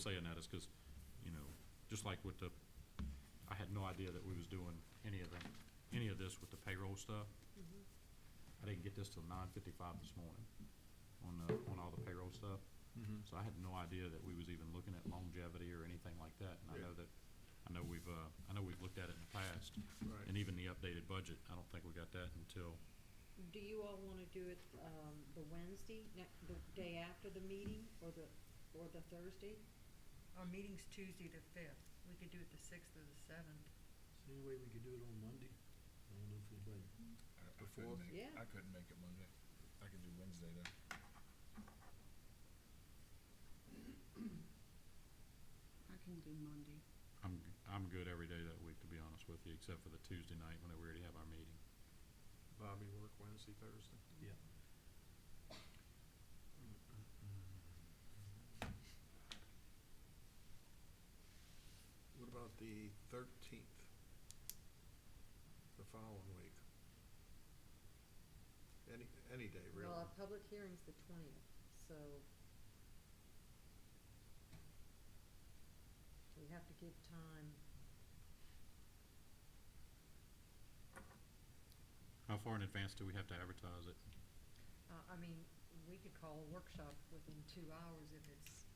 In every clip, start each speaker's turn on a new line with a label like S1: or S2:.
S1: saying that is because, you know, just like with the, I had no idea that we was doing any of that, any of this with the payroll stuff.
S2: Mm-hmm.
S1: I didn't get this till nine fifty-five this morning on the, on all the payroll stuff.
S3: Mhm.
S4: Mm-hmm.
S1: So I had no idea that we was even looking at longevity or anything like that. And I
S3: Yeah.
S1: know that, I know we've, uh, I know we've looked at it in the past.
S3: Right.
S1: And even the updated budget, I don't think we got that until,
S5: Do you all wanna do it, um, the Wednesday, ne- the day after the meeting, or the, or the Thursday?
S6: Our meeting's Tuesday the fifth. We could do it the sixth or the seventh.
S7: Is there any way we could do it on Monday? I don't know if anybody,
S4: I- I
S7: The
S4: couldn't
S7: fourth?
S4: make-
S5: Yeah.
S4: I couldn't make it Monday. I could do Wednesday then.
S2: I can do Monday.
S1: I'm, I'm good every day that week, to be honest with you, except for the Tuesday night when we already have our meeting.
S3: Bobby work Wednesday, Thursday.
S7: yeah.
S3: What about the thirteenth? The following week? Any, any day, really?
S5: Well, our public hearing's the twentieth, so. We have to give time,
S1: How far in advance do we have to advertise it?
S5: uh, I mean, we could call a workshop within two hours if it's,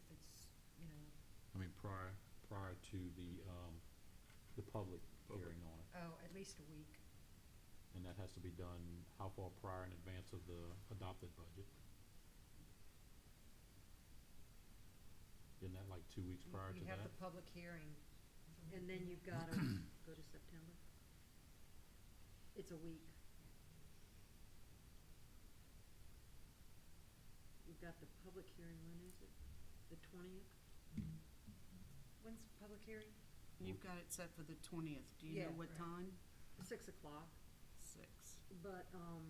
S5: if it's, you know,
S1: I mean, prior, prior to the, um, the public
S3: Public.
S1: hearing on it.
S5: oh, at least a week.
S1: And that has to be done how far prior in advance of the adopted budget? Isn't that like two weeks
S5: You-
S1: prior to
S5: You have
S1: that?
S5: the public hearing, and then you've gotta go to September. It's a week. You've got the public hearing, when is it? The twentieth? When's the public hearing?
S1: Mm-hmm.
S2: You've got it set for the twentieth. Do you
S5: Yeah,
S2: know what
S5: right.
S2: time?
S5: Six o'clock,
S2: Six.
S5: but, um,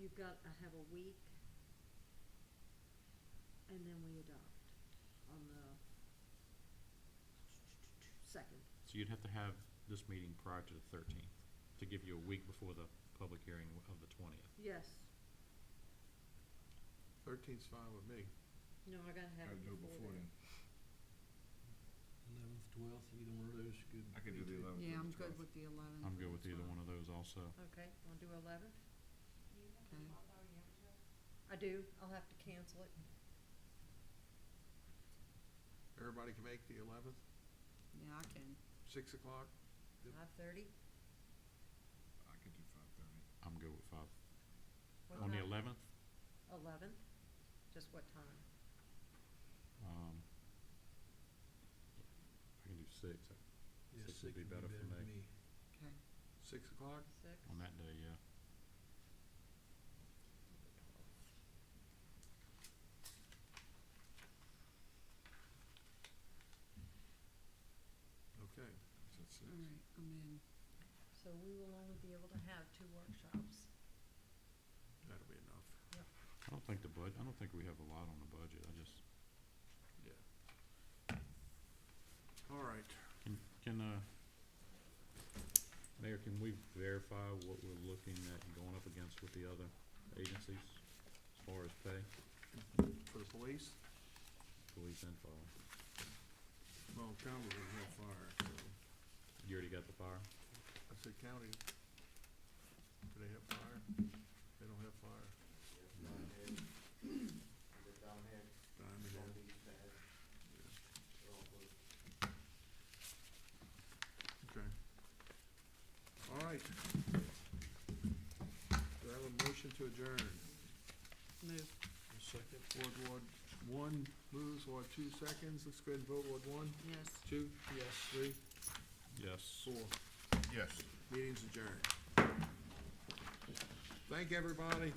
S5: you've got, I have a week, and then we adopt on the second.
S1: So you'd have to have this meeting prior to the thirteenth, to give you a week before the public hearing of the twentieth.
S5: Yes,
S3: Thirteenth's fine with me.
S5: no, I gotta have
S4: I'd
S5: it
S4: do it
S5: before
S4: before
S5: then.
S4: then.
S7: Eleventh, twelfth, either one of those could.
S4: I could do the
S7: be-
S4: eleventh.
S2: Yeah, I'm good with the eleventh.
S1: I'm good with either one of those also.
S5: Okay, wanna do eleven?
S2: Okay.
S5: I do, I'll have to cancel it.
S3: Everybody can make the eleventh,
S2: Yeah, I can.
S3: six o'clock?
S5: Five thirty?
S4: I could do five thirty.
S1: I'm good with five. On the eleventh,
S5: Eleventh, just what time?
S1: um, I can do six.
S7: Yeah,
S1: Six would be
S7: would
S1: better for me.
S2: Okay.
S3: Six o'clock?
S5: Six?
S1: On that day, yeah.
S3: Okay.
S4: So it's
S2: All
S4: six.
S2: right, I'm in.
S5: So we will only be able to have two workshops.
S3: That'll be enough.
S1: I don't think the bud, I don't think we have a lot on the budget. I just,
S3: Yeah. All right.
S1: can, can, uh, Mayor, can we verify what we're looking at and going up against with the other agencies as far as pay,
S3: For the police?
S1: police and fire?
S3: Well, county doesn't have fire, so,
S1: You already got the fire?
S3: I said county, do they have fire? They don't have fire. Diamond Head, yeah. Okay. All right. Do I have a motion to adjourn?
S2: Move.
S7: Second.
S3: Ward Ward one moves, Ward two seconds, let's go ahead and vote, Ward one,
S2: Yes.
S3: two? Yes. Three,
S1: Yes.
S3: four,
S4: Yes.
S3: meeting's adjourned. Thank everybody.